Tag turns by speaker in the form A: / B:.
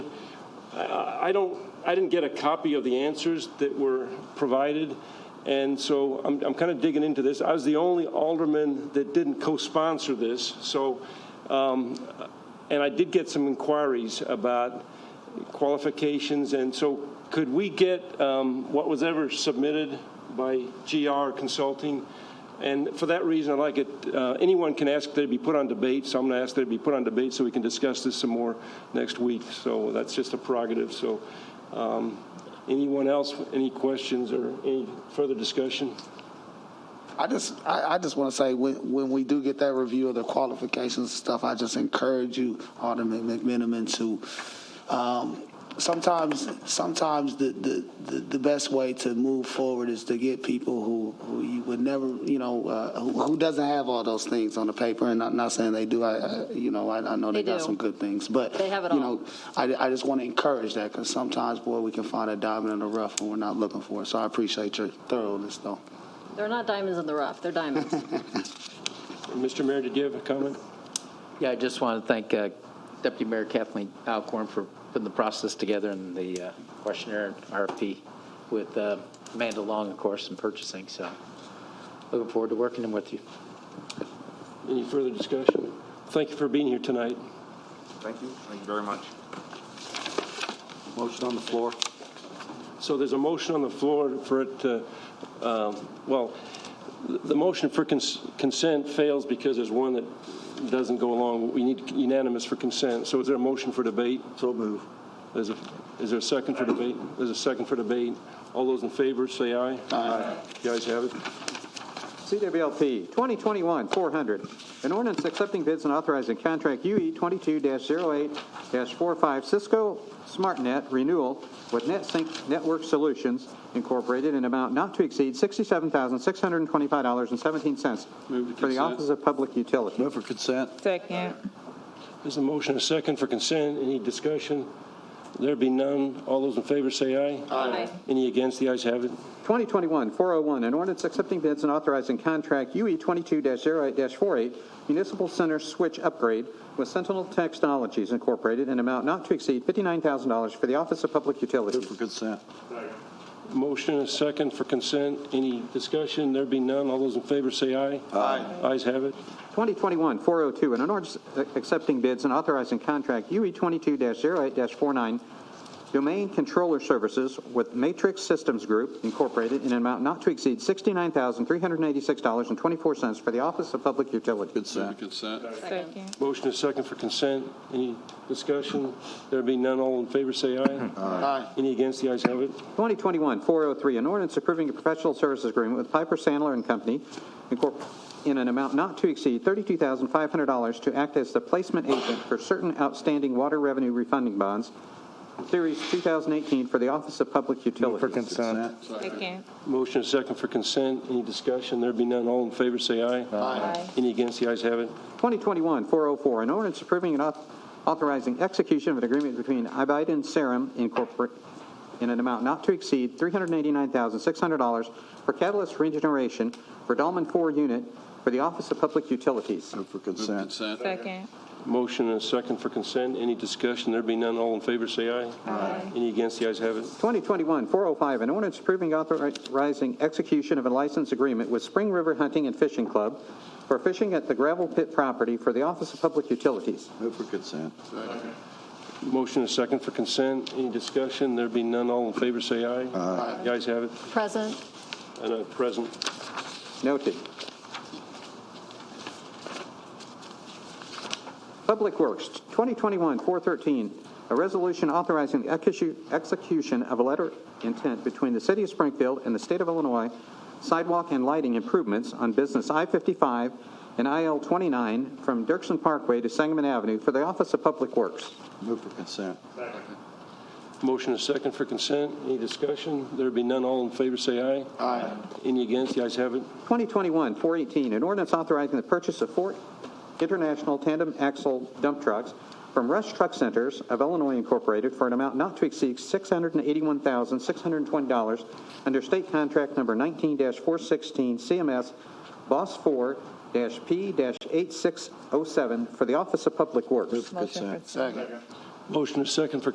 A: I don't, I didn't get a copy of the answers that were provided, and so I'm, I'm kind of digging into this. I was the only alderman that didn't co-sponsor this, so, um, and I did get some inquiries about qualifications, and so could we get um, what was ever submitted by GR Consulting? And for that reason, I like it, uh, anyone can ask that it be put on debate, so I'm going to ask that it be put on debate so we can discuss this some more next week. So that's just a prerogative, so um, anyone else, any questions or any further discussion?
B: I just, I, I just want to say, when, when we do get that review of the qualifications and stuff, I just encourage you, Alderman McMiniman, to, um, sometimes, sometimes the, the, the, the best way to move forward is to get people who, who you would never, you know, uh, who, who doesn't have all those things on the paper, and I'm not saying they do, I, I you know, I, I know they
C: They
B: got
C: do.
B: some good things, but.
C: They have it
B: you
C: all.
B: know, I, I just want to encourage that, because sometimes, boy, we can find a diamond in the rough when we're not looking for it, so I appreciate your thoroughness, though.
C: They're not diamonds in the rough, they're diamonds.
A: Mr. Mayor, did you have a comment?
D: Yeah, I just want to thank uh, Deputy Mayor Kathleen Alcorn for putting the process together and the uh, questionnaire and RFP with uh, Amanda Long, of course, in purchasing, so looking forward to working with you.
A: Any further discussion? Thank you for being here tonight.
E: Thank you. Thank you very much.
B: Motion on the floor.
A: So there's a motion on the floor for it to, um, well, the- the motion for cons- consent fails because there's one that doesn't go along. We need unanimous for consent. So is there a motion for debate? So move. Is there a second for debate? There's a second for debate. All those in favor, say aye. Aye. The ayes have it.
F: CWLP 2021-400, an ordinance accepting bids and authorizing contract E UE 22-08-45 Cisco SmartNet renewal with NetSync Network Solutions Incorporated in amount not to exceed $67,625.17 for the Office of Public Utilities.
G: Move for consent.
H: Second.
A: There's a motion, a second for consent. Any discussion? There be none. All those in favor, say aye.
C: Aye.
A: Any against? The ayes have it.
F: 2021-401, an ordinance accepting bids and authorizing contract E UE 22-08-48 Municipal Center Switch Upgrade with Sentinel Technologies Incorporated in amount not to exceed $59,000 for the Office of Public
G: Move
F: Utilities.
G: for consent.
A: Motion, a second for consent. Any discussion? There be none. All those in favor, say aye. Aye. Ayes have it.
F: 2021-402, an ordinance accepting bids and authorizing contract E UE 22-08-49 Domain Controller Services with Matrix Systems Group Incorporated in an amount not to exceed $69,386.24 for the Office of Public Utilities.
G: Consent.
H: Second.
A: Motion, a second for consent. Any discussion? There be none. All in favor, say aye. Aye. Any against? The ayes have it.
F: 2021-403, an ordinance approving a professional services agreement with Piper Sandler and Company Incorp- in an amount not to exceed $32,500 to act as the placement agent for certain outstanding water revenue refunding bonds, Series 2018, for the Office of Public Utilities.
G: Consent.
H: Second.
A: Motion, a second for consent. Any discussion? There be none. All in favor, say aye.
H: Aye.
A: Any against? The ayes have it.
F: 2021-404, an ordinance approving and auth- authorizing execution of an agreement between Ibiden and Serum Incorporated in an amount not to exceed $389,600 for catalyst regeneration for Dolman 4 unit for the Office of Public Utilities.
G: Move for consent.
H: Second.
A: Motion, a second for consent. Any discussion? There be none. All in favor, say aye. Aye. Any against? The ayes have it.
F: 2021-405, an ordinance approving authorizing execution of a license agreement with Spring River Hunting and Fishing Club for fishing at the gravel pit property for the Office of Public Utilities.
G: Move for consent.
A: Motion, a second for consent. Any discussion? There be none. All in favor, say aye. Aye. The ayes have it.
C: Present,
A: And a present.
F: Noted. Public Works, 2021-413, a resolution authorizing the execu- execution of a letter intent between the City of Springfield and the State of Illinois sidewalk and lighting improvements on Business I-55 and IL-29 from Dirksen Parkway to Sangamon Avenue for the Office of Public Works.
G: Move for consent.
A: Motion is second for consent. Any discussion? There be none. All in favor, say aye. Aye. Any against? The ayes have it.
F: 2021-418, an ordinance authorizing the purchase of four international tandem axle dump trucks from Rush Truck Centers of Illinois Incorporated for an amount not to exceed $681,620 under state contract number 19-416 CMS Boss 4-P-8607 for the Office of Public Works.
G: Move for consent.
H: Motion for
A: Motion is second for